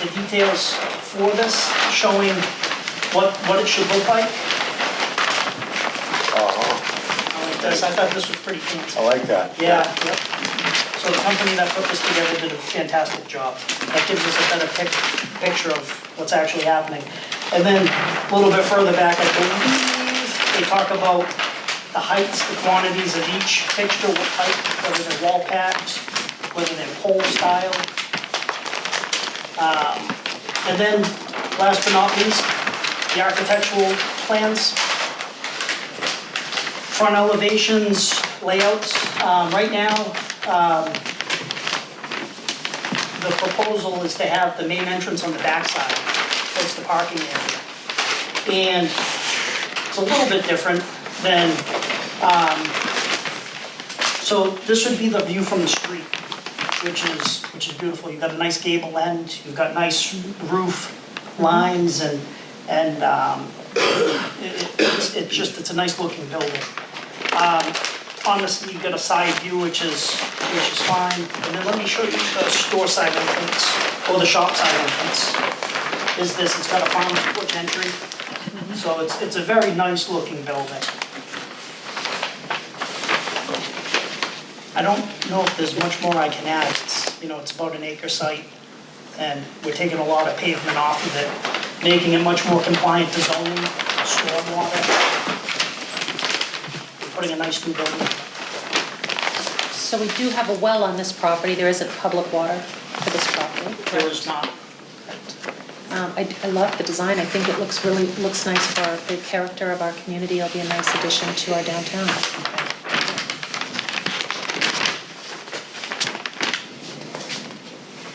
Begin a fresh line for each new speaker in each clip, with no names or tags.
the details for this, showing what, what it should look like.
Oh,
I like this. Um, I thought this was pretty fancy.
I like that.
Yeah, yep. So the company that put this together did a fantastic job. That gives us a better pic, picture of what's actually happening. And then a little bit further back, I believe, they talk about the heights, the quantities of each fixture, what height, whether they're wall packs, whether they're pole style. Um, And then, last but not least, the architectural plans front elevations, layouts. Um, Right now, um, the proposal is to have the main entrance on the backside, that's the parking area. And it's a little bit different than, um, so this would be the view from the street, which is, which is beautiful. You've got a nice gable end, you've got nice roof lines and, and um, it- It's it's just, it's a nice looking building. Um, On this, you've got a side view, which is, which is fine. And then let me show you the store side entrance, or the shop side entrance. Is this, it's got a farm porch entry. So it's, it's a very nice looking building. I don't know if there's much more I can add. It's, you know, it's about an acre site and we're taking a lot of pavement off of it, making it much more compliant to zoning, stormwater. Putting a nice new building.
So we do have a well on this property, there isn't public water for this property.
There is not,
Um, I I love the design, I think it looks really, looks nice for the character of our community, it'll be a nice addition to our downtown.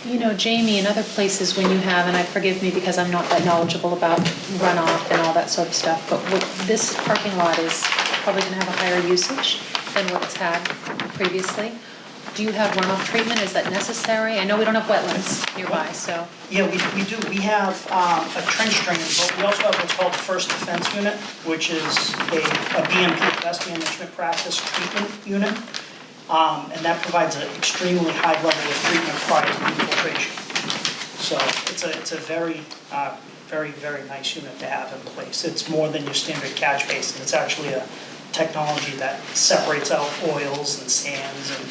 You know, Jamie, in other places when you have, and I forgive me because I'm not that knowledgeable about runoff and all that sort of stuff, but what- this parking lot is probably gonna have a higher usage than what it's had previously. Do you have runoff treatment, is that necessary? I know we don't have wetlands nearby, so.
yeah, we, we do, we have, um, a trench drain, but we also have what's called the first defense unit, which is a, a BMP, best management practice treatment unit. Um, and that provides an extremely high level of treatment prior to infiltration. So it's a, it's a very, uh, very, very nice unit to have in place. It's more than your standard catch basin. It's actually a technology that separates out oils and sands and,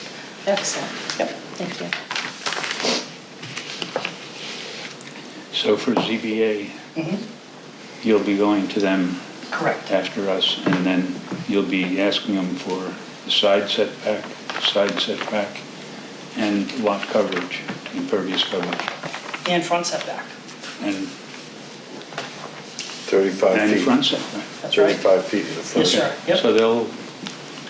Excellent,
yep.
thank you.
So for ZBA,
Mhm.
you'll be going to them
Correct.
after us, and then you'll be asking them for the side setback, side setback, and lot coverage, impervious coverage,
And front setback.
and,
35
and
feet.
front setback.
That's right.
35 feet is the front.
Yes, sir. Yep.
So they'll,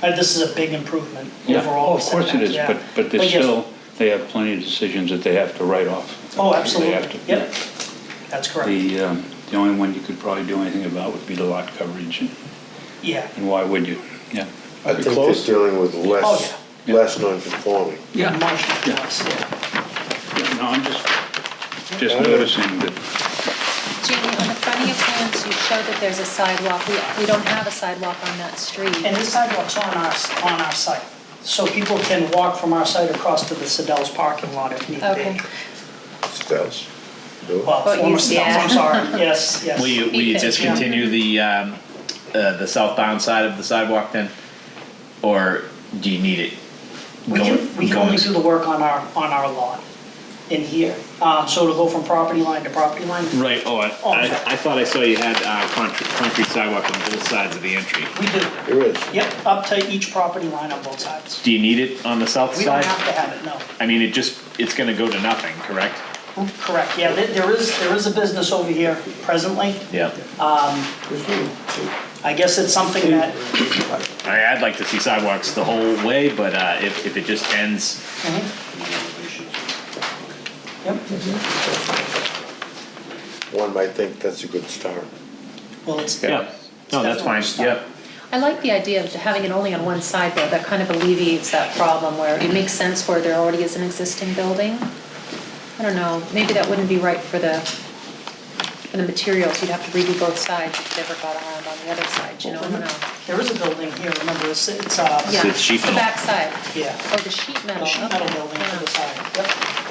Uh, This is a big improvement
yeah,
overall.
Oh, of course it
setbacks,
is,
yeah.
but, but they
yes.
still, they have plenty of decisions that they have to write off.
Oh,
They
absolutely.
have to-
Yep. That's correct.
The, um, the only one you could probably do anything about would be the lot coverage, and-
Yeah.
and why would you? Yeah.
I think they're dealing with less,
Oh,
yeah.
less non-conforming.
Yeah.
Much
Yeah.
less, yeah.
No, I'm just, just
Yeah.
noticing that,
Jamie, on the front of your plans, you show that there's a sidewalk. We, we don't have a sidewalk on that street.
And this sidewalk's on our, on our site. So people can walk from our site across to the Sedell's parking lot if need
Okay.
be.
That's, no,
Well,
But
former
you-
Sedell's, I'm
yeah.
sorry. Yes, yes.
Will you, will you
Because, yeah.
discontinue the, um, uh, the southbound side of the sidewalk then? Or do you need it?
We do,
going-
we can
going-
only do the work on our, on our lot in here. Um, So it'll go from property line to property line.
Right, oh, I,
Oh,
I
sorry.
I thought I saw you had, uh, concrete, concrete sidewalk on both sides of the entry.
We do.
there is.
Yep, up to each property line on both sides.
Do you need it on the south
We don't
side?
have to have it, no.
I mean, it just, it's gonna go to nothing, correct?
Correct, yeah, there- there is, there is a business over here presently.
Yeah.
I guess it's something that,
I, I'd like to see sidewalks the whole way, but, uh, if, if it just ends,
yep,
One might think that's a good start.
well, it's,
yeah, no, that's fine, yeah.
I like the idea of having it only on one side though. That kind of alleviates that problem where it makes sense where there already is an existing building. I don't know, maybe that wouldn't be right for the, for the materials. You'd have to redo both sides if it ever got around on the other side, you know, I don't know.
there is a building here, remember, it's, it's, uh,
Yeah,
it's sheet
The
metal.
backside.
yeah,
Oh, the sheet metal,
the sheet metal
okay.
building to
Yeah.
the side, yep.